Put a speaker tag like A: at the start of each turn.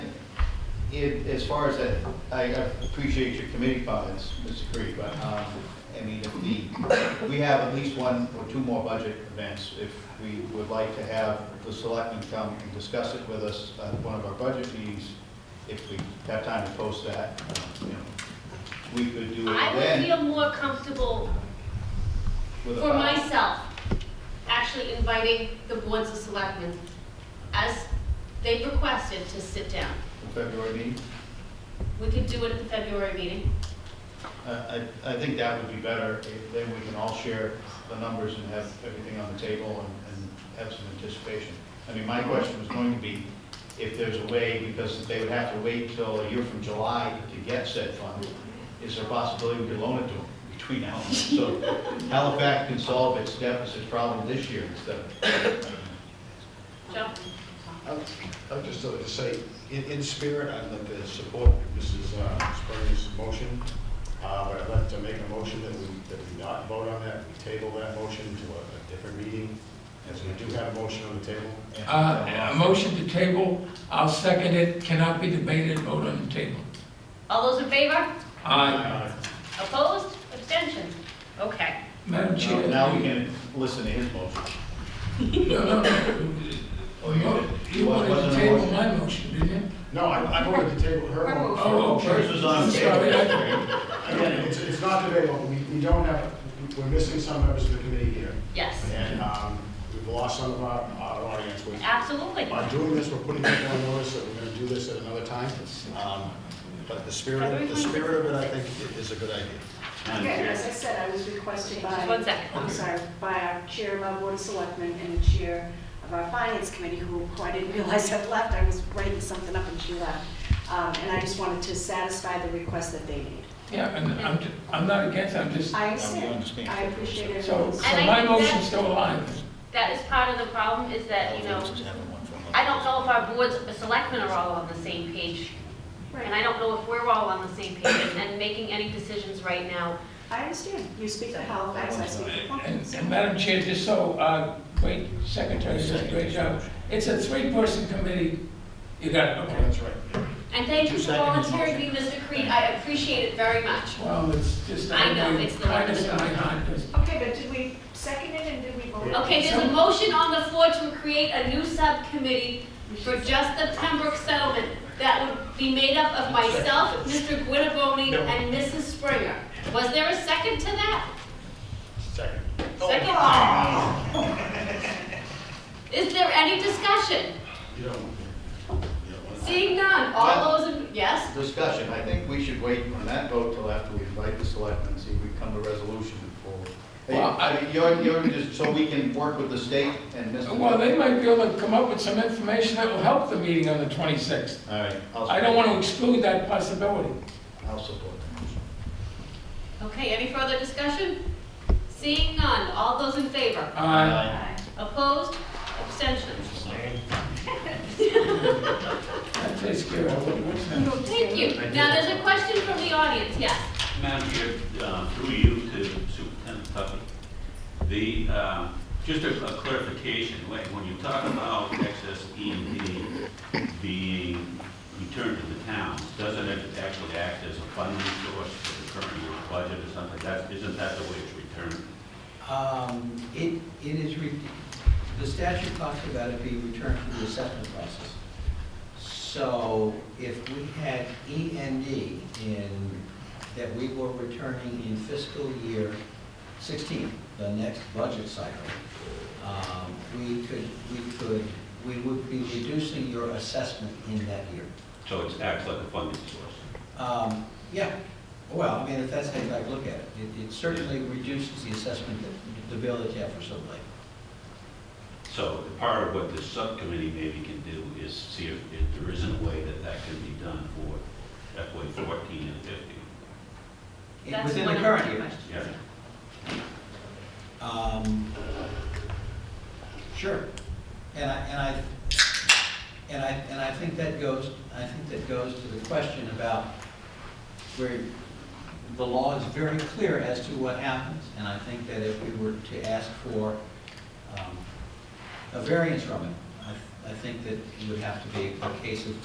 A: If, as far as that, I appreciate your committee comments, Mr. Creed, but, um, I mean, if the, we have at least one or two more budget events. If we would like to have the selectmen come and discuss it with us at one of our budget meetings, if we have time to post that, you know, we could do it
B: I would
A: then
B: feel more comfortable
A: with a.
B: for
A: pow-
B: myself, actually inviting the boards of selectmen, as they've requested, to sit down.
A: February meeting.
B: We could do it at the February meeting.
A: I, I I think that would be better, If- then we can all share the numbers and have everything on the table and, and have some anticipation. I mean, my question was going to be, if there's a way, because they would have to wait till a year from July to get said fund, is there a possibility we could loan it to them between now and then? So Halifax can solve its deficit problem this year instead of,
B: Joe?
C: I would- I would just like to say, in, in spirit, I'd like to support Mrs. uh, Spurgeon's motion, uh, but I'd like to make a motion that we, that we not vote on that, we table that motion to a, a different meeting, as we do have a motion on the table.
D: Uh, A motion to table, I'll second it, cannot be debated, vote on the table.
B: All those in favor?
D: Aye.
C: Uh,
B: Opposed? Abstentions? Okay.
D: Madam Chair.
A: now we can listen to his motion.
D: No, no,
A: Oh, you
D: no.
A: did.
D: You wanted
A: Wasn't
D: to
A: a
D: table
A: motion.
D: my motion, didn't you?
C: No, I, I voted to table her
B: Her
C: motion.
D: Oh, okay.
A: Hers was on the
D: Sorry, I-
A: table.
C: I mean, It's, it's not debatable, we, we don't have, we're missing some members of the committee here,
B: Yes,
C: and, um, we've lost some of our, our audience, which
B: absolutely.
C: By doing this, we're putting people on notice that we're gonna do this at another time. Um, But the spirit, the spirit of it, I think, i- is a good idea.
E: Okay, as I said, I was requested by.
B: Just one second.
E: I'm sorry, by our chair of our board of selectmen and the chair of our finance committee, who, who I didn't realize had left, I was writing something up and she left. Um, and I just wanted to satisfy the request that they made.
D: Yeah, and I'm, ju- I'm not against, I'm just,
A: I
E: I understand,
A: understand.
E: I appreciate it.
D: so, so
B: And I
D: my
B: think
D: motion's
B: that's-
D: still alive.
B: That is part of the problem, is that, you know, I don't know if our boards, the selectmen are all on the same page. And I don't know if we're all on the same page and- and making any decisions right now.
E: I understand, you speak for Halifax, I speak for
D: And,
E: Plumpton.
D: and Madam Chair, just so, uh, great secretary, does a great job. It's a three-person committee, you got, it, okay.
C: That's right.
B: And thank you for volunteering me, Mr. Creed, I appreciate it very much.
D: Well, it's just,
B: I know,
D: I'm
B: it's the-
D: kindness in my heart, 'cause
E: Okay, but did we second it and did we vote?
B: Okay, there's a motion on the floor to create a new subcommittee for just the Pembroke settlement that would be made up of myself, Mr. Guinevere, and Mrs. Springer. Was there a second to that?
C: Second.
B: Second? Is there any discussion?
C: You don't, you don't want to.
B: Seeing none, all those in, yes?
A: Discussion, I think we should wait on that vote till after we invite the selectmen, see if we come to resolution before. Hey,
D: Well, I-
A: I mean, you're, you're just, so we can work with the state and Mr.
D: Well, they might be able to come up with some information that will help the meeting on the 26th.
A: All right. I'll
D: I don't want to
A: support-
D: exclude that possibility.
A: I'll support the motion.
B: Okay, any further discussion? Seeing none, all those in favor?
D: Uh,
E: Aye.
B: Opposed? Abstentions?
D: That takes care of it. What's next?
B: Thank you. Now, there's a question from the audience, yes?
F: Madam Chair, uh, through you to Superintendent Tuffy, the, uh, just a a clarification, when when you talk about excess E and D being returned to the towns, doesn't it actually act as a funding source for the current year's budget or something? That, isn't that the way it's returned?
G: Um, It, it is, re- the statute talks about it being returned to the assessment process. So if we had E and D in, that we were returning in fiscal year 16, the next budget cycle, um, we could, we could, we would be reducing your assessment in that year.
F: So it acts like a funding source?
G: Um, Yeah, well, I mean, if that's how you like to look at it, it it certainly reduces the assessment that the village had for Silver Lake.
F: So part of what this subcommittee maybe can do is see if if there isn't a way that that can be done for FY 14 and 15.
B: That's
G: Within
B: one
G: the
B: of
G: current
B: my
G: year.
B: questions.
F: Yeah?
G: Um, Sure. And I, and I, and I, and I think that goes, I think that goes to the question about where the law is very clear as to what happens, and I think that if we were to ask for um, a variance from it, I, I think that it would have to be a case of